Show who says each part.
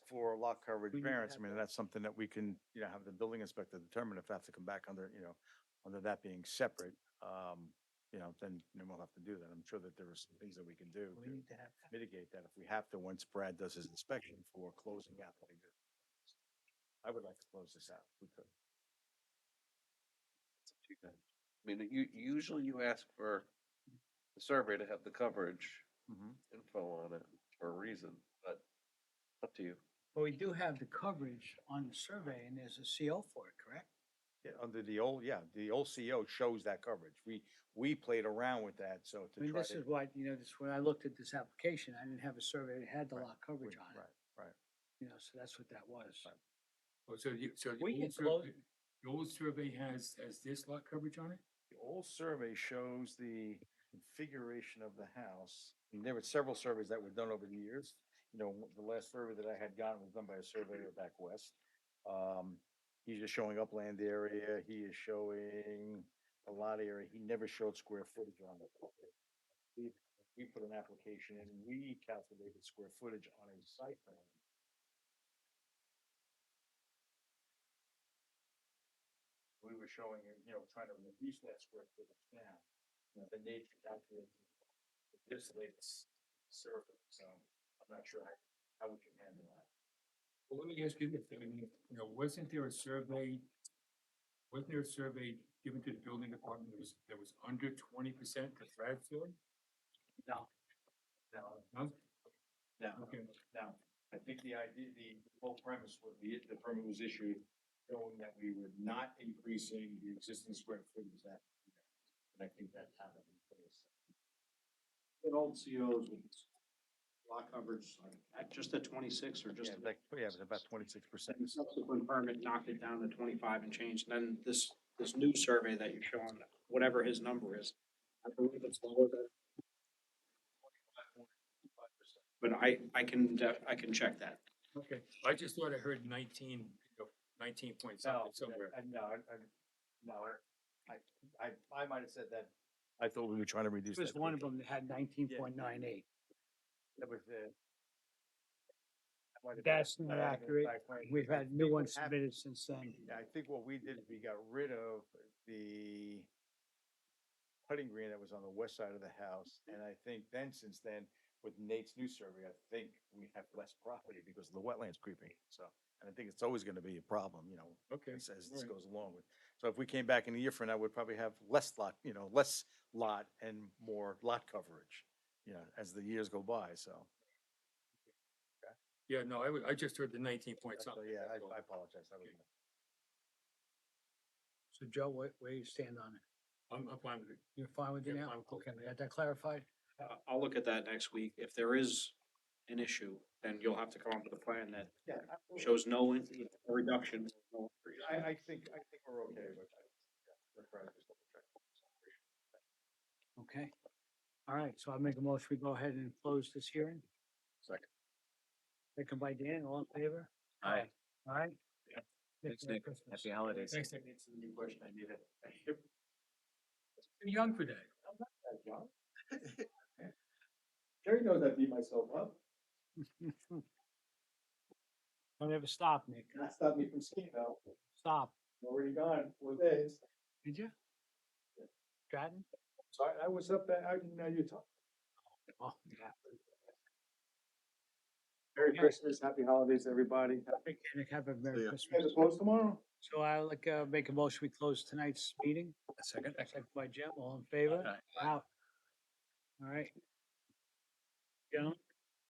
Speaker 1: lot coverage
Speaker 2: We need to
Speaker 1: variance, I
Speaker 2: have
Speaker 1: mean,
Speaker 2: that.
Speaker 1: that's something that we can, you know, have the building inspector determine if that's to come back under, you know, under that being separate, um, you know, then, then we'll have to do that. I'm sure that there are some things that we can do
Speaker 2: We
Speaker 1: to
Speaker 2: need to have that.
Speaker 1: mitigate that if we have to, once Brad does his inspection for closing out. the existing. I would like to close this out, if we could.
Speaker 3: I mean, you, usually you ask for the survey to have the coverage
Speaker 1: Mhm.
Speaker 2: Mm-hmm.
Speaker 3: info on it for a reason, but up to you.
Speaker 2: But we do have the coverage on the survey and there's a CO for it, correct?
Speaker 1: Yeah, under the old, yeah, the old CO shows that coverage. We, we played around with that, so
Speaker 2: I
Speaker 1: to
Speaker 2: mean,
Speaker 1: try
Speaker 2: this
Speaker 1: to.
Speaker 2: is what, you know, this, when I looked at this application, I didn't have a survey that had the
Speaker 1: Right,
Speaker 2: lot coverage
Speaker 1: we-
Speaker 2: on it,
Speaker 1: Right, right.
Speaker 2: you know, so that's what that was.
Speaker 1: Right.
Speaker 4: Oh, so you, so the
Speaker 2: We can
Speaker 4: old
Speaker 2: close,
Speaker 4: survey, the old survey has, has this lot coverage on it?
Speaker 1: The old survey shows the configuration of the house. And there were several surveys that were done over the years. You know, the last survey that I had gotten was done by a surveyor back west. Um, he's just showing upland area, he is showing a lot area, he never showed square footage on it. We- We put an application in, and we calculated square footage on a site plan. we were showing, it, you know, trying to reduce that square footage down. You know, The nature calculated with this latest survey, so I'm not sure how, how we can handle that.
Speaker 4: Well, let me ask you this, I mean, you know, wasn't there a survey? Wasn't there a survey given to the building department that was, that was under twenty percent to Bradfield?
Speaker 1: No. No,
Speaker 4: Huh?
Speaker 1: no,
Speaker 4: Okay,
Speaker 1: no. I think the idea, the whole premise would be, the permit was issued showing that we were not increasing the existing square footage that. And I think that's how that was placed.
Speaker 5: It all COs with lot coverage, like, at just at twenty-six or just.
Speaker 1: yeah, it was about twenty-six percent.
Speaker 5: And the subsequent permit knocked it down to twenty-five and changed, and then this, this new survey that you're showing, whatever his number is, I believe it's lower than. But I, I can, def- I can check that.
Speaker 4: okay, I just thought I heard nineteen, you know, nineteen point
Speaker 1: Oh,
Speaker 4: something somewhere.
Speaker 1: I- I- No, I, I, no, I, I, I might have said that. I thought we were trying to reduce.
Speaker 2: There was one of them that had nineteen point nine eight.
Speaker 1: That was the. that might have been-
Speaker 2: That's
Speaker 1: that
Speaker 2: not
Speaker 1: might have been
Speaker 2: accurate.
Speaker 1: back when-
Speaker 2: We've
Speaker 1: I
Speaker 2: had
Speaker 1: think
Speaker 2: new
Speaker 1: what
Speaker 2: ones
Speaker 1: happened-
Speaker 2: submitted since then.
Speaker 1: Yeah, I think what we did is we got rid of the putting green that was on the west side of the house.
Speaker 4: Mm-hmm.
Speaker 1: And I think then, since then, with Nate's new survey, I think we have less property because of the wetlands creeping. So, and I think it's always gonna be a problem, you know,
Speaker 4: Okay,
Speaker 1: as, as this
Speaker 4: alright.
Speaker 1: goes along with. So if we came back in a year from now, we'd probably have less lot, you know, less lot and more lot coverage, you know, as the years go by, so.
Speaker 4: yeah, no, I, w- I just heard the nineteen point
Speaker 1: so,
Speaker 4: something.
Speaker 1: Yeah, I
Speaker 4: that's all.
Speaker 1: I apologize. That was
Speaker 4: Okay.
Speaker 1: my-
Speaker 2: So Joe, where, where you stand on it?
Speaker 4: I'm, I'm fine with it.
Speaker 2: You're fine with it
Speaker 4: Yeah,
Speaker 2: now?
Speaker 4: I'm cool.
Speaker 2: Okay, we got that clarified?
Speaker 5: I- I'll look at that next week. If there is an issue, then you'll have to come up with a plan that
Speaker 1: Yeah. I-
Speaker 5: shows no in- reduction. no increase.
Speaker 1: I, I think, I think we're okay with that. Yeah, we're probably just double checking.
Speaker 2: Okay. All right, so I make a motion, we go ahead and close this hearing.
Speaker 1: Second.
Speaker 2: Second by Dan, all in favor?
Speaker 6: Aye.
Speaker 2: All right?
Speaker 6: Yep.
Speaker 2: Merry
Speaker 6: Thanks, Nick.
Speaker 2: Christmas.
Speaker 6: Happy holidays.
Speaker 4: Thanks, Nick.
Speaker 1: It's a new question. I need it.
Speaker 4: You're young for that.
Speaker 1: Jerry knows I beat myself up.
Speaker 2: Don't ever stop, Nick.
Speaker 1: That stopped me from skiing though.
Speaker 2: Stop.
Speaker 1: I'm Already gone four days.
Speaker 2: Did you? Stratton?
Speaker 1: So I, I was up there, I didn't know you talked.
Speaker 2: Oh, yeah.
Speaker 1: Merry Christmas, happy holidays, everybody.
Speaker 2: Okay, Nick, have a Merry
Speaker 6: ya.
Speaker 2: Christmas.
Speaker 1: close tomorrow?
Speaker 2: So I'll like, uh, make a motion, we close tonight's meeting.
Speaker 6: Second.
Speaker 2: Second by Jim, all in favor?
Speaker 6: Aye.
Speaker 2: Out. All right. Gentlemen,